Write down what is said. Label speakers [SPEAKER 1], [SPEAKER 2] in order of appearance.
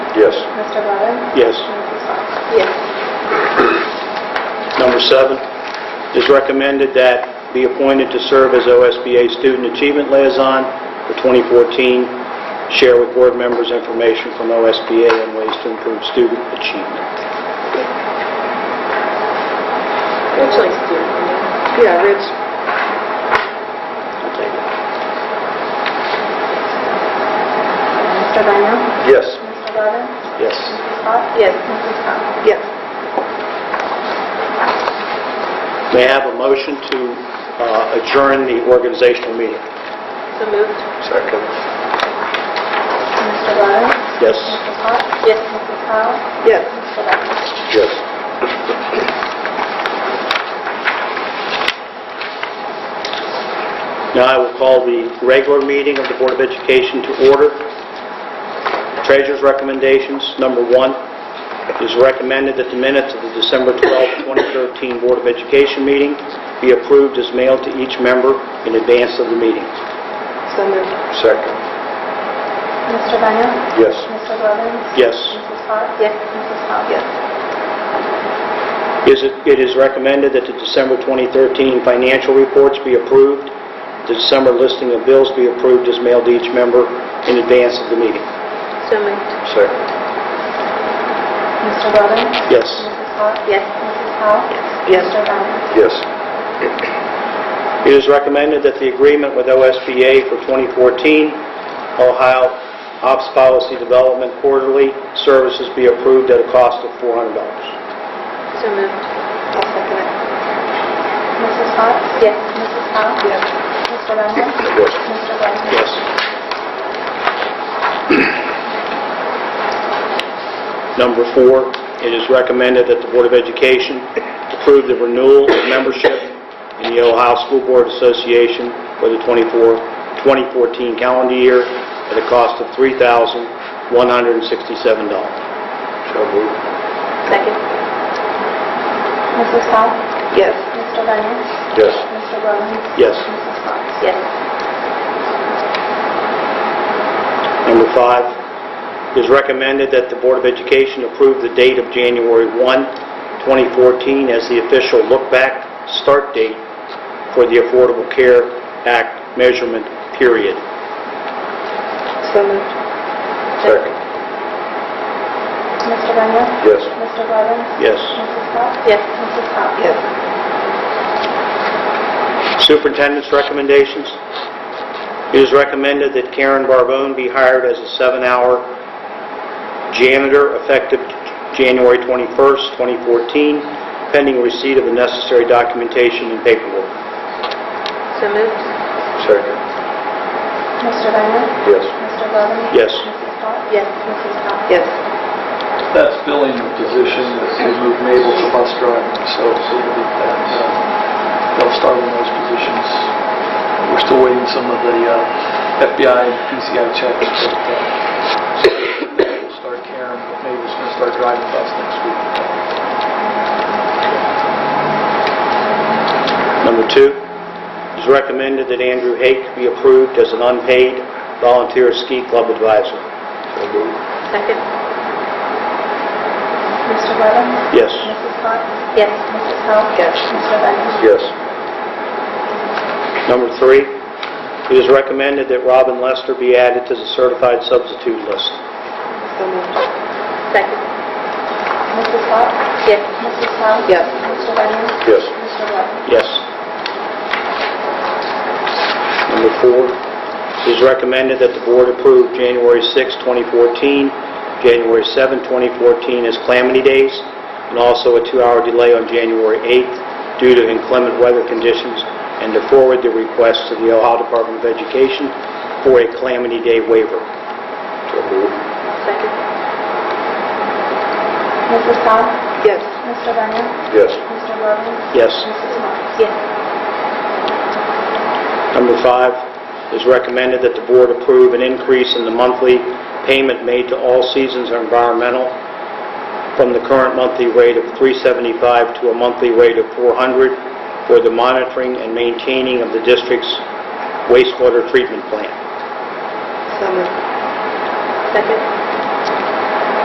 [SPEAKER 1] Yes.
[SPEAKER 2] Mr. Levin?
[SPEAKER 3] Yes.
[SPEAKER 2] Mrs. Potts?
[SPEAKER 4] Yes.
[SPEAKER 3] Number seven, it is recommended that be appointed to serve as OSBA Student Achievement Liaison for 2014, share with board members information from OSBA on ways to improve student achievement.
[SPEAKER 4] Rich likes to.
[SPEAKER 3] Yeah, Rich. I'll take it.
[SPEAKER 2] Mr. Daniel?
[SPEAKER 1] Yes.
[SPEAKER 2] Mr. Levin?
[SPEAKER 3] Yes.
[SPEAKER 2] Mrs. Potts?
[SPEAKER 4] Yes.
[SPEAKER 2] Mrs. Potts?
[SPEAKER 4] Yes.
[SPEAKER 3] May I have a motion to uh, adjourn the organizational meeting?
[SPEAKER 4] So moved.
[SPEAKER 1] Second.
[SPEAKER 2] Mr. Levin?
[SPEAKER 3] Yes.
[SPEAKER 2] Mrs. Potts?
[SPEAKER 4] Yes.
[SPEAKER 2] Mrs. Powell?
[SPEAKER 4] Yes.
[SPEAKER 2] Mr. Daniel?
[SPEAKER 1] Yes.
[SPEAKER 3] Now I will call the regular meeting of the Board of Education to order. Treasurer's recommendations, number one, it is recommended that the minutes of the December 12, 2013 Board of Education meeting be approved as mailed to each member in advance of the meeting.
[SPEAKER 4] So moved.
[SPEAKER 1] Second.
[SPEAKER 2] Mr. Daniel?
[SPEAKER 1] Yes.
[SPEAKER 2] Mr. Levin?
[SPEAKER 3] Yes.
[SPEAKER 2] Mrs. Potts?
[SPEAKER 4] Yes.
[SPEAKER 2] Mrs. Powell?
[SPEAKER 4] Yes.
[SPEAKER 3] Is It it is recommended that the December 2013 financial reports be approved, the December listing of bills be approved as mailed to each member in advance of the meeting.
[SPEAKER 4] So moved.
[SPEAKER 1] Second.
[SPEAKER 2] Mr. Levin?
[SPEAKER 3] Yes.
[SPEAKER 2] Mrs. Potts?
[SPEAKER 4] Yes.
[SPEAKER 2] Mrs. Powell?
[SPEAKER 4] Yes.
[SPEAKER 2] Mr. Daniel?
[SPEAKER 1] Yes.
[SPEAKER 3] It is recommended that the agreement with OSBA for 2014 Ohio Ops Policy Development Quarterly Services be approved at a cost of $400.
[SPEAKER 4] So moved. I'll second it.
[SPEAKER 2] Mrs. Potts?
[SPEAKER 4] Yes.
[SPEAKER 2] Mrs. Powell?
[SPEAKER 4] Yes.
[SPEAKER 2] Mr. Daniel?
[SPEAKER 1] Yes.
[SPEAKER 2] Mr. Levin?
[SPEAKER 3] Yes. Number four, it is recommended that the Board of Education approve the renewal of membership in the Ohio School Board Association for the 24 2014 calendar year at a cost of $3,167.
[SPEAKER 1] So moved.
[SPEAKER 4] Second.
[SPEAKER 2] Mrs. Powell?
[SPEAKER 4] Yes.
[SPEAKER 2] Mr. Daniel?
[SPEAKER 1] Yes.
[SPEAKER 2] Mr. Levin?
[SPEAKER 3] Yes.
[SPEAKER 2] Mrs. Potts?
[SPEAKER 4] Yes.
[SPEAKER 3] Number five, it is recommended that the Board of Education approve the date of January 1, 2014 as the official look-back start date for the Affordable Care Act measurement period.
[SPEAKER 4] So moved.
[SPEAKER 1] Second.
[SPEAKER 2] Mr. Daniel?
[SPEAKER 1] Yes.
[SPEAKER 2] Mr. Levin?
[SPEAKER 3] Yes.
[SPEAKER 2] Mrs. Potts?
[SPEAKER 4] Yes.
[SPEAKER 2] Mrs. Powell?
[SPEAKER 4] Yes.
[SPEAKER 3] Superintendent's recommendations. It is recommended that Karen Barbone be hired as a seven-hour janitor effective January 21st, 2014, pending receipt of the necessary documentation and paperwork.
[SPEAKER 4] So moved.
[SPEAKER 1] Second.
[SPEAKER 2] Mr. Daniel?
[SPEAKER 1] Yes.
[SPEAKER 2] Mr. Levin?
[SPEAKER 3] Yes.
[SPEAKER 2] Mrs. Potts?
[SPEAKER 4] Yes.
[SPEAKER 2] Mrs. Powell?
[SPEAKER 4] Yes.
[SPEAKER 5] That's filling the position that they moved Mabel to bus driving, so so that, uh, they'll start in those positions. We're still waiting some of the uh, FBI and PCI checks, but uh, so we'll start Karen, but Mabel's going to start driving bus next week.
[SPEAKER 3] Number two, it is recommended that Andrew Hake be approved as an unpaid volunteer ski club advisor.
[SPEAKER 1] So moved.
[SPEAKER 4] Second.
[SPEAKER 2] Mr. Levin?
[SPEAKER 3] Yes.
[SPEAKER 2] Mrs. Potts?
[SPEAKER 4] Yes.
[SPEAKER 2] Mrs. Powell?
[SPEAKER 4] Yes.
[SPEAKER 2] Mr. Daniel?
[SPEAKER 1] Yes.
[SPEAKER 3] Number three, it is recommended that Robin Lester be added to the certified substitute list.
[SPEAKER 4] So moved. Second.
[SPEAKER 2] Mrs. Potts?
[SPEAKER 4] Yes.
[SPEAKER 2] Mrs. Powell?
[SPEAKER 4] Yes.
[SPEAKER 2] Mr. Daniel?
[SPEAKER 1] Yes.
[SPEAKER 2] Mr. Levin?
[SPEAKER 3] Yes. Number four, it is recommended that the board approve January 6, 2014, January 7, 2014 as calamity days, and also a two-hour delay on January 8th due to inclement weather conditions, and to forward the request to the Ohio Department of Education for a calamity day waiver.
[SPEAKER 1] So moved.
[SPEAKER 4] Second.
[SPEAKER 2] Mrs. Powell?
[SPEAKER 4] Yes.
[SPEAKER 2] Mr. Daniel?
[SPEAKER 1] Yes.
[SPEAKER 2] Mr. Levin?
[SPEAKER 3] Yes.
[SPEAKER 2] Mrs. Potts?
[SPEAKER 4] Yes.
[SPEAKER 3] Number five, it is recommended that the board approve an increase in the monthly payment made to All Seasons Environmental from the current monthly rate of 375 to a monthly rate of 400 for the monitoring and maintaining of the district's wastewater treatment plant.
[SPEAKER 4] So moved. Second.